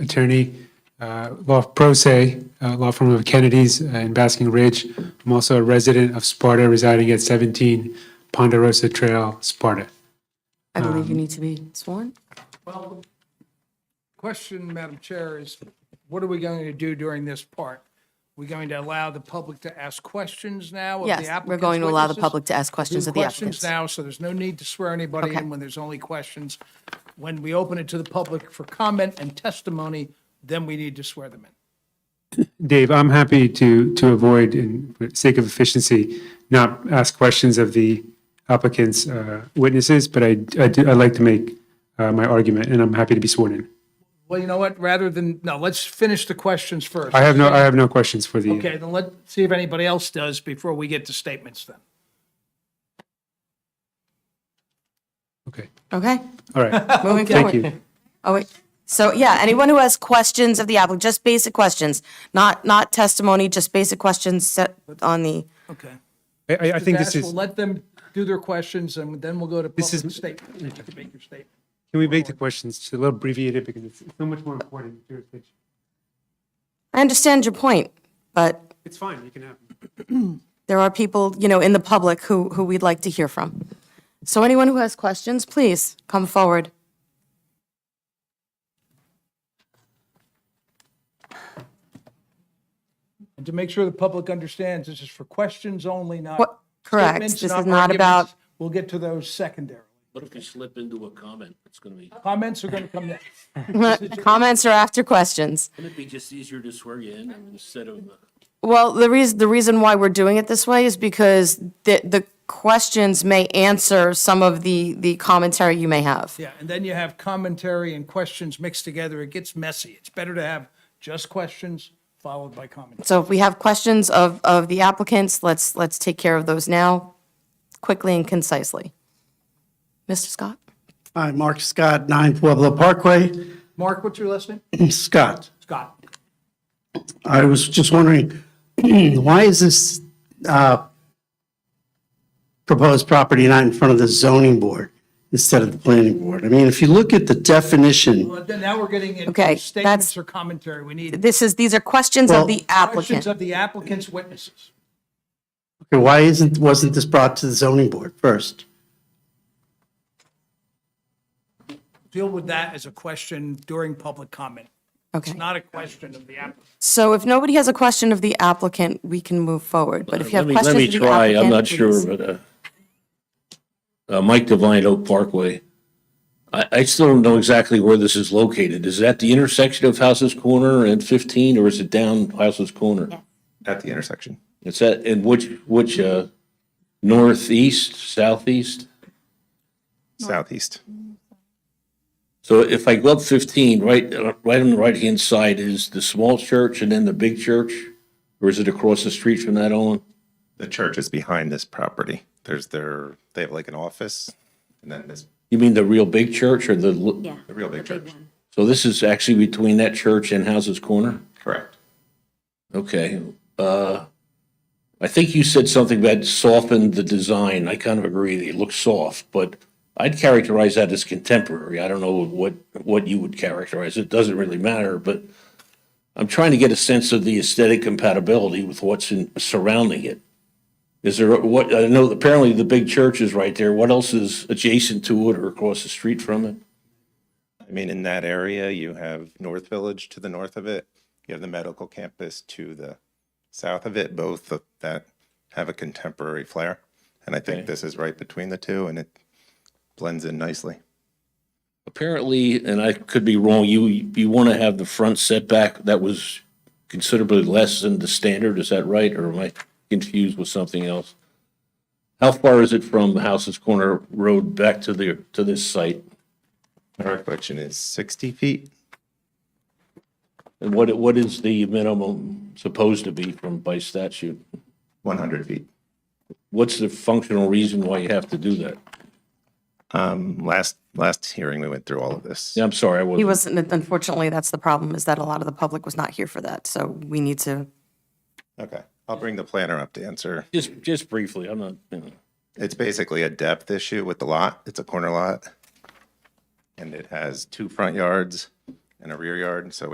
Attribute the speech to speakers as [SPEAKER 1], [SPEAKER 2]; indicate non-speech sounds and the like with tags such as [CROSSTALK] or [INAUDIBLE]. [SPEAKER 1] attorney, uh, law pro se, uh, law firm of Kennedy's uh, in Basking Ridge. I'm also a resident of Sparta, residing at 17 Ponderosa Trail, Sparta.
[SPEAKER 2] I believe
[SPEAKER 1] Um,
[SPEAKER 2] you need to be sworn.
[SPEAKER 3] Question, Madam Chair, is what are we going to do during this part? We going to allow the public to ask questions now of the
[SPEAKER 2] Yes,
[SPEAKER 3] applicants?
[SPEAKER 2] we're going to allow the
[SPEAKER 3] witnesses?
[SPEAKER 2] public to ask questions
[SPEAKER 3] Do
[SPEAKER 2] of the
[SPEAKER 3] Questions
[SPEAKER 2] applicants.
[SPEAKER 3] now, so there's no need to swear anybody
[SPEAKER 2] Okay.
[SPEAKER 3] in when there's only questions. When we open it to the public for comment and testimony, then we need to swear them in.
[SPEAKER 1] Dave, I'm happy to, to avoid, in for sake of efficiency, not ask questions of the applicant's uh, witnesses, but I, I do, I'd like to make uh, my argument, and I'm happy to be sworn in.
[SPEAKER 3] Well, you know what, rather than, no, let's finish the questions first.
[SPEAKER 1] I have no, I have no questions for the.
[SPEAKER 3] Okay, then let's see if anybody else does before we get to statements then.
[SPEAKER 1] Okay,
[SPEAKER 3] [LAUGHS]
[SPEAKER 2] Okay,
[SPEAKER 1] all right,
[SPEAKER 2] moving
[SPEAKER 1] thank
[SPEAKER 2] forward.
[SPEAKER 1] you.
[SPEAKER 2] Oh, wait. So, yeah, anyone who has questions of the applicant, just basic questions, not, not testimony, just basic questions set on the,
[SPEAKER 3] Okay.
[SPEAKER 1] I- I, I think this
[SPEAKER 3] Ask-
[SPEAKER 1] is.
[SPEAKER 3] We'll let them do their questions, and then we'll go to
[SPEAKER 1] This is-
[SPEAKER 3] public statements. You can make your statement.
[SPEAKER 1] Can we make the questions just a little abbreviated because it's so much more important jurisdiction?
[SPEAKER 2] I understand your point, but
[SPEAKER 1] It's fine, you can have. them.
[SPEAKER 2] there are people, you know, in the public who, who we'd like to hear from. So anyone who has questions, please come forward. [LAUGHS]
[SPEAKER 3] And to make sure the public understands, this is for questions only, not.
[SPEAKER 2] What- correct.
[SPEAKER 3] statements,
[SPEAKER 2] This is not about-
[SPEAKER 3] arguments. We'll get to those secondarily.
[SPEAKER 4] What if you slip into a comment? It's gonna be,
[SPEAKER 3] Comments are going to come next.
[SPEAKER 2] Comments are after questions.
[SPEAKER 4] wouldn't it be just easier to swear you in instead of, uh,
[SPEAKER 2] Well, the reason, the reason why we're doing it this way is because the, the questions may answer some of the, the commentary you may have.
[SPEAKER 3] Yeah, and then you have commentary and questions mixed together. It gets messy. It's better to have just questions followed by commentary.
[SPEAKER 2] So if we have questions of, of the applicants, let's, let's take care of those now, quickly and concisely. Mr. Scott?
[SPEAKER 5] Hi, Mark Scott, 9 Pueblo Parkway.
[SPEAKER 3] Mark, what's your last name?
[SPEAKER 5] Scott,
[SPEAKER 3] Scott.
[SPEAKER 5] I was just wondering, [CLEARS THROAT] why is this uh, proposed property not in front of the zoning board instead of the planning board? I mean, if you look at the definition,
[SPEAKER 3] Well, then now we're getting
[SPEAKER 2] Okay,
[SPEAKER 3] into
[SPEAKER 2] that's-
[SPEAKER 3] statements or commentary. We need
[SPEAKER 2] This is, these are questions of
[SPEAKER 5] Well-
[SPEAKER 2] the applicant.
[SPEAKER 3] questions of the applicant's witnesses.
[SPEAKER 5] why isn't, wasn't this brought to the zoning board first?
[SPEAKER 3] deal with that as a question during public comment.
[SPEAKER 2] Okay.
[SPEAKER 3] It's not a question of the applicant.
[SPEAKER 2] So if nobody has a question of the applicant, we can move forward. But if you
[SPEAKER 4] let
[SPEAKER 2] have
[SPEAKER 4] me, let
[SPEAKER 2] questions
[SPEAKER 4] me
[SPEAKER 2] of the
[SPEAKER 4] try,
[SPEAKER 2] applicant,
[SPEAKER 4] I'm not
[SPEAKER 2] please.
[SPEAKER 4] sure, but, uh, uh, Mike Devine, Oak Parkway. I, I still don't know exactly where this is located. Is it at the intersection of Houses Corner and fifteen, or is it down Houses Corner?
[SPEAKER 6] at the intersection.
[SPEAKER 4] It's at, in which, which, uh, northeast, southeast?
[SPEAKER 6] Southeast.
[SPEAKER 4] So if I go up 15, right, uh, right on the right-hand side is the small church and then the big church? Or is it across the street from that on?
[SPEAKER 6] The church is behind this property. There's their, they have like an office and then this,
[SPEAKER 4] You mean the real big church or the? l-
[SPEAKER 7] Yeah.
[SPEAKER 6] the real big church.
[SPEAKER 4] So this is actually between that church and Houses Corner?
[SPEAKER 6] Correct.
[SPEAKER 4] Okay. Uh, I think you said something about softened the design. I kind of agree that it looks soft, but I'd characterize that as contemporary. I don't know what, what you would characterize. It doesn't really matter, but I'm trying to get a sense of the aesthetic compatibility with what's in, surrounding it. Is there, what, I know apparently the big church is right there. What else is adjacent to it or across the street from it?
[SPEAKER 6] I mean, in that area, you have North Village to the north of it. You have the medical campus to the south of it, both of that have a contemporary flair. And I think this is right between the two and it blends in nicely.
[SPEAKER 4] Apparently, and I could be wrong, you, you want to have the front setback that was considerably less than the standard, is that right? Or am I confused with something else? How far is it from House's Corner Road back to the, to this site?
[SPEAKER 6] My recollection is 60 feet.
[SPEAKER 4] And what, what is the minimum supposed to be from, by statute?
[SPEAKER 6] 100 feet.
[SPEAKER 4] What's the functional reason why you have to do that?
[SPEAKER 6] Um, last, last hearing, we went through all of this.
[SPEAKER 4] Yeah, I'm sorry, I
[SPEAKER 2] He
[SPEAKER 4] wasn't,
[SPEAKER 2] wasn't, unfortunately, that's the problem, is that a lot of the public was not here for that. So we need to,
[SPEAKER 6] Okay. I'll bring the planner up to answer.
[SPEAKER 4] just, just briefly, I'm not, you know.
[SPEAKER 6] It's basically a depth issue with the lot. It's a corner lot. And it has two front yards and a rear yard, so